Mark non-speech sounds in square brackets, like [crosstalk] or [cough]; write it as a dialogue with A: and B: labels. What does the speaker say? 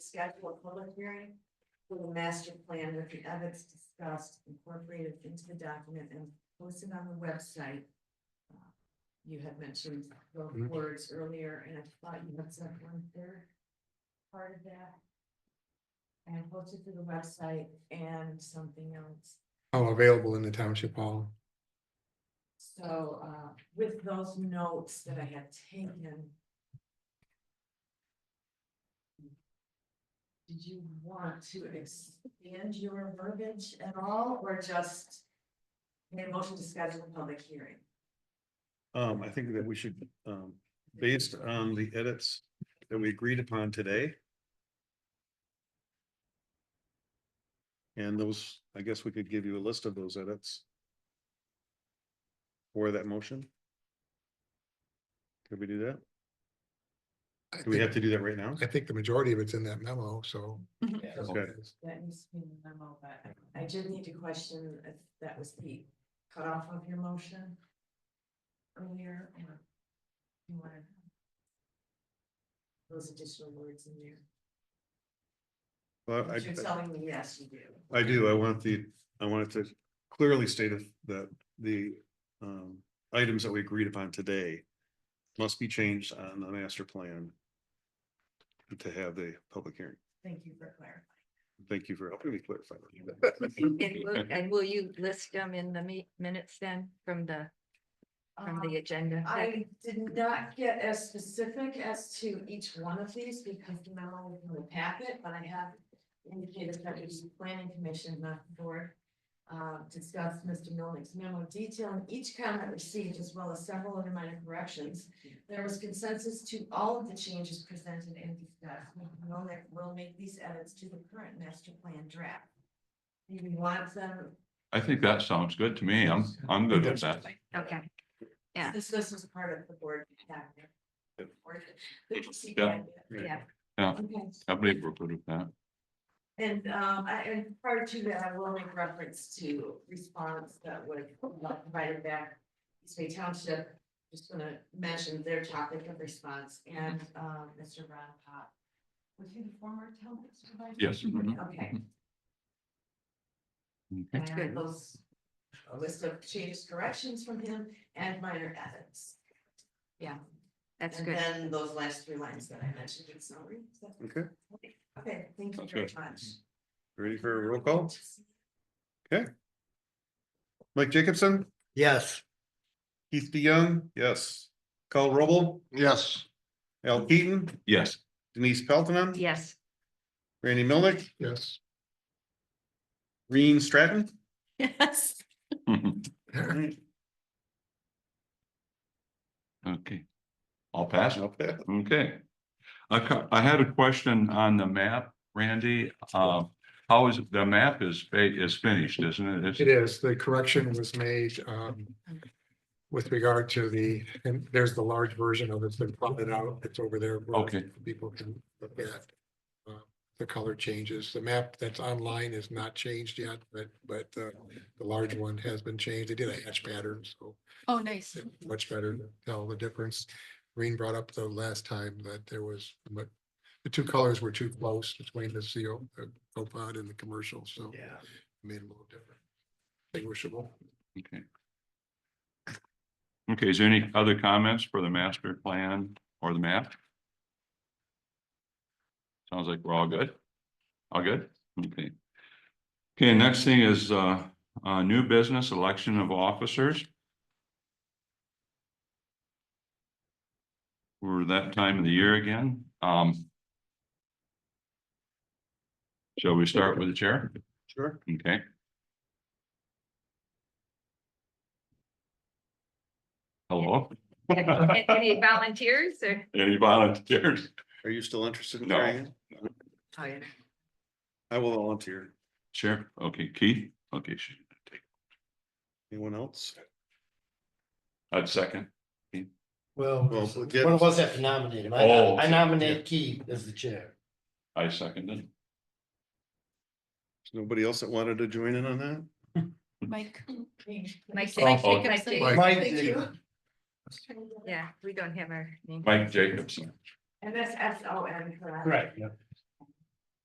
A: schedule a public hearing for the master plan with the ethics discussed incorporated into the document and posted on the website. Uh, You had mentioned those
B: Mhm.
A: words earlier, and I thought you had said one third part of that. And I posted to the website and something else.
B: all Oh, available in the township hall.
A: So uh with those notes that I had taken. Did you want to expand your verbiage at all or just? Make a motion to schedule a public hearing?
C: Um, I think that we should, um, based on the edits that we agreed upon today. And those, I guess we could give you a list of those edits. For that motion. Could we do that?
B: I
C: Do we have to
B: think-
C: do that right now?
B: I think the majority of it's in that memo, so.
C: Okay.
A: That needs to be in the memo, but I did need to question if that was the cutoff of your motion. Earlier or. You wanted. Those additional words in there.
C: Well, I,
A: But You're telling me, yes, you do.
C: I do, I want the, I wanted to clearly state if- that the, um, items that we agreed upon today. Must be changed on the master plan. To have the public hearing.
A: Thank you for clarifying.
C: Thank you for helping me clarify.
D: And will,
C: that.
D: and will you list them in the me- minutes then from the, from the
A: Um,
D: agenda?
A: I did not get as specific as to each one of these because the memo was in the packet, but I have indicated that it was the planning commission, not the board. Uh, discussed Mr. Milnick's memo detailing each comment received as well as several other minor corrections. There was consensus to all of the changes presented and discussed. Mr. Milnick will make these edits to the current master plan draft. If you want them
E: I think that sounds good to me. I'm, I'm good with that.
D: Okay, Yeah.
A: This, this was part of the board. packet.
C: Yep.
A: Or the- the proceed
E: Yeah.
A: packet.
D: yeah.
E: Yeah,
A: Okay,
E: I believe we're good with that.
A: and, um, I, and prior to that, I will make reference to response that would uh, provided back. East Bay Township, just gonna mention their topic of response and, um, Mr. Ron Pop. Was he the former town supervisor?
E: Yes, mhm.
A: Okay.
E: Okay.
A: And I have those, a list of changes, corrections from him and minor edits.
D: That's
A: And
D: good.
A: Then those last three lines that I mentioned in summary. Is that-
C: Okay,
A: Okay, thank you
E: Sounds
A: very
E: good.
A: much.
C: ready for a roll call? Mike Jacobson,
B: Yes.
C: Keith DeYoung, yes. Carl Rubble,
B: Yes.
C: Al Keaton,
E: Yes, [laughs]
C: Denise Pelton,
A: [laughs]
D: Yes,
C: Randy Milnick,
B: Yes.
C: Reen Stratton.
F: Yes.
E: Mhm. okay. I'll pass. Okay. I, ca- I had a question on the map, Randy. Uh, how is, the map is, fa- is finished, isn't it? It's-
B: It is. The correction was made um with regard to the, and there's the large version of it. It's been plotted out. It's over there. where
E: Okay.
B: People can look at. uh, The color changes. The map that's online is not changed yet, but but uh, the large one has been changed. They did a hatch pattern, so
F: Oh, nice.
B: it's much better to tell the difference. Green brought up the last time that there was, but the two colors were too close between the CO, the GoPod and the commercial, so.
C: Yeah.
B: Made it a little different. Distinguishable.
E: Okay. Okay, is there any other comments for the master plan or the map? Sounds like we're all good. All good? Okay. Okay, next thing is uh, uh, new business election of officers. We're that time of the year again. Um. Shall we start with the chair?
C: Sure.
E: Okay. Hello? [laughs]
D: A- any volunteers or?
E: Any volunteers?
C: Are you still interested in
E: No.
C: trying? it?
A: Oh,
C: I will volunteer.
E: Sure, okay, Keith, okay, sh-
C: Anyone else?
E: I'd second,
G: Well,
C: Well,
G: what
C: get-
G: was that to nominate him? I
E: Oh,
G: nom- I
E: yeah.
G: nominate Keith as the chair.
E: I seconded.
C: Is Nobody else that wanted to join in on that?
F: Mike.
D: Mike
E: Mike
D: Jacobs.
F: Jacobs.
D: Mike Jacobs.
G: Mike
A: Thank
G: did.
A: you.
D: Yeah, we don't have our name.
E: Mike Jacobson,
A: And that's S O N, correct?
G: Right, yeah.